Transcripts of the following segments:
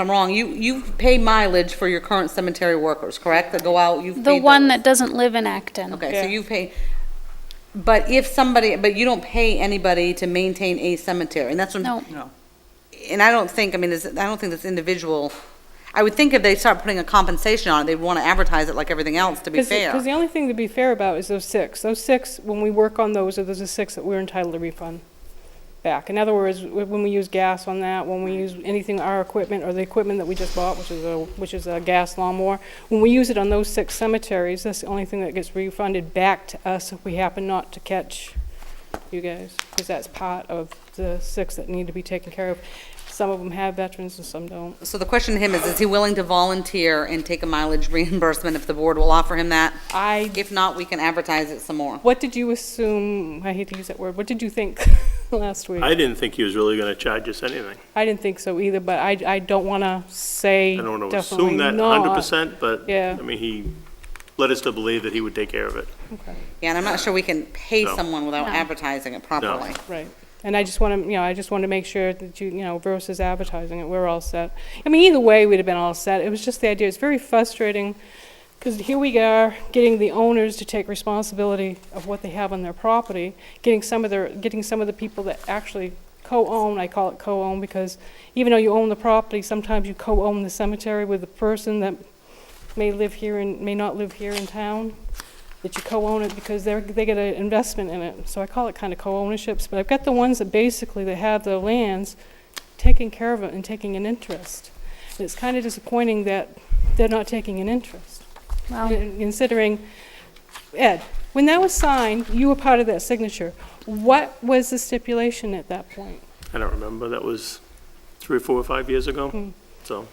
I'm wrong, you, you pay mileage for your current cemetery workers, correct? That go out, you've paid The one those. that doesn't live in Acton. Okay, so Yeah. you pay, but if somebody, but you don't pay anybody to maintain a cemetery, and that's what. No. No. And I don't think, I mean, this- I don't think this individual, I would think if they start putting a compensation on it, they'd want to advertise it like everything else, to be fair. Because the only thing to be fair about is those six. Those six, when we work on those, are those the six that we're entitled to refund back. In other words, wh- when we use gas on that, when we use anything, our equipment or the equipment that we just bought, which is a, which is a gas lawnmower, when we use it on those six cemeteries, that's the only thing that gets refunded back to us if we happen not to catch you guys, because that's part of the six that need to be taken care of. Some of them have veterans and some don't. So the question to him is, is he willing to volunteer and take a mileage reimbursement if the board will offer him that? I If not, we can advertise it some more. What did you assume, I hate to use that word, what did you think last week? I didn't think he was really gonna charge us anything. I didn't think so either, but I, I don't want to say I don't want to definitely assume that not. hundred percent, but, Yeah. I mean, he led us to believe that he would take care of it. Yeah, and I'm not sure we can pay No. someone without advertising it properly. Right. And I just want to, you know, I just want to make sure that you, you know, versus advertising it, we're all set. I mean, either way, we'd have been all set. It was just the idea, it's very frustrating because here we are, getting the owners to take responsibility of what they have on their property, getting some of their, getting some of the people that actually co-own, I call it co-own because even though you own the property, sometimes you co-own the cemetery with the person that may live here and may not live here in town, that you co-own it because they're, they get an investment in it. So I call it kind of co-ownerships, but I've got the ones that basically they have the lands, taking care of it and taking an interest. And it's kind of disappointing that they're not taking an interest. Well, And Considering, Ed, when that was signed, you were part of that signature. What was the stipulation at that point? I don't remember, that was three, four, or five years Hmm. ago, so.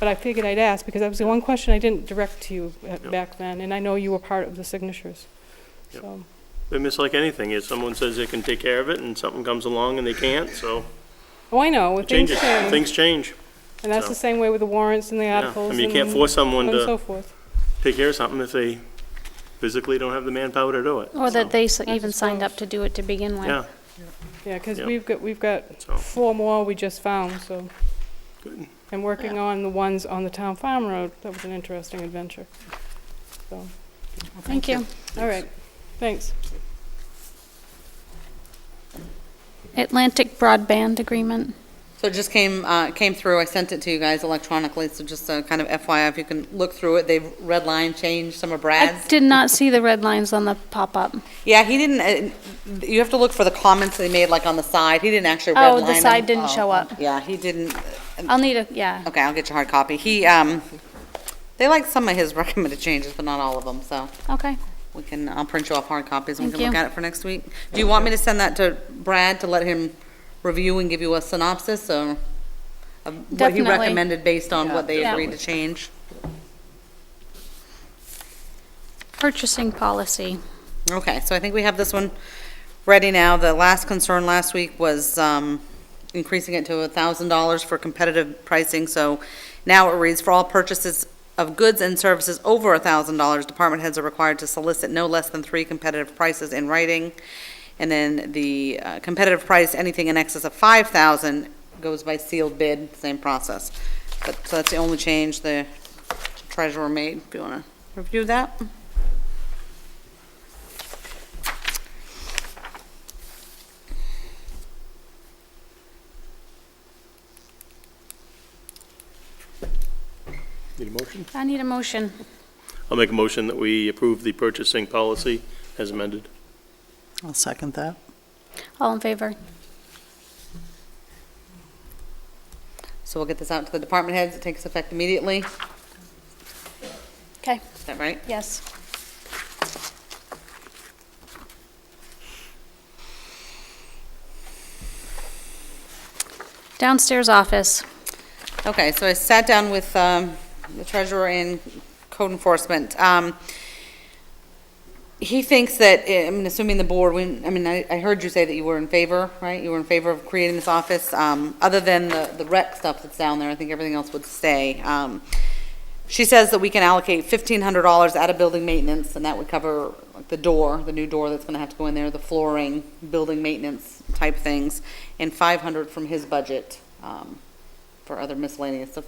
But I figured I'd ask because that was the one question I didn't direct to you at- Yep. back then, and I know you were part of the signatures. Yep. So, They miss like anything, if someone says they can take care of it and something comes along and they can't, so oh, I know, it things changes, change. things change. And that's the same way with the warrants and the Yeah, I articles. mean, you can't and- force someone And so to forth. take care of something if they physically don't have the manpower to do it. Oh, or so, that they s- even just signed gross. up to do it to begin with. Yeah, Yeah, because Yep. we've got, we've got So- four more we just found, so. Good. And working on the ones on the town farm road, that was an interesting adventure. So, Thank you. all right, thanks. Atlantic Broadband Agreement. So it just came, uh, came through, I sent it to you guys electronically, so just uh, kind of FYI, if you can look through it, they've red line changed some of I Brad's. did not see the red lines on the pop-up. Yeah, he didn't, uh, you have to look for the comments they made, like on the side, he didn't actually redline Oh, the them. side didn't Oh, show up. Yeah, he didn't, I'll need a, yeah. okay, I'll get your hard copy. He, um, they like some of his recommended changes, but not all of them, so Okay. we can, I'll print you off hard copies and we Thank can look you. at it for next week. Do you want me to send that to Brad to let him review and give you a synopsis or of what he Definitely. recommended based on what they Yeah. agreed to change? Purchasing policy. Okay, so I think we have this one ready now. The last concern last week was um, increasing it to $1,000 for competitive pricing, so now it reads, "For all purchases of goods and services over $1,000, department heads are required to solicit no less than three competitive prices in writing." And then the uh, competitive price, anything in excess of 5,000 goes by sealed bid, same process. But, so that's the only change the treasurer made, if you want to review that. need a motion? I need a motion. I'll make a motion that we approve the purchasing policy as amended. I'll second that. All in favor? So we'll get this out to the department heads, it takes effect immediately, is Okay, that right? yes. Downstairs office. Okay, so I sat down with um, the treasurer and code enforcement. Um, He thinks that, eh, I mean, assuming the board, when, I mean, I I heard you say that you were in favor, right? You were in favor of creating this office, um, other than the the rec stuff that's down there, I think everything else would stay. Um, She says that we can allocate $1,500 out of building maintenance, and that would cover like, the door, the new door that's going to have to go in there, the flooring, building maintenance type things, and 500 from his budget um, for other miscellaneous stuff.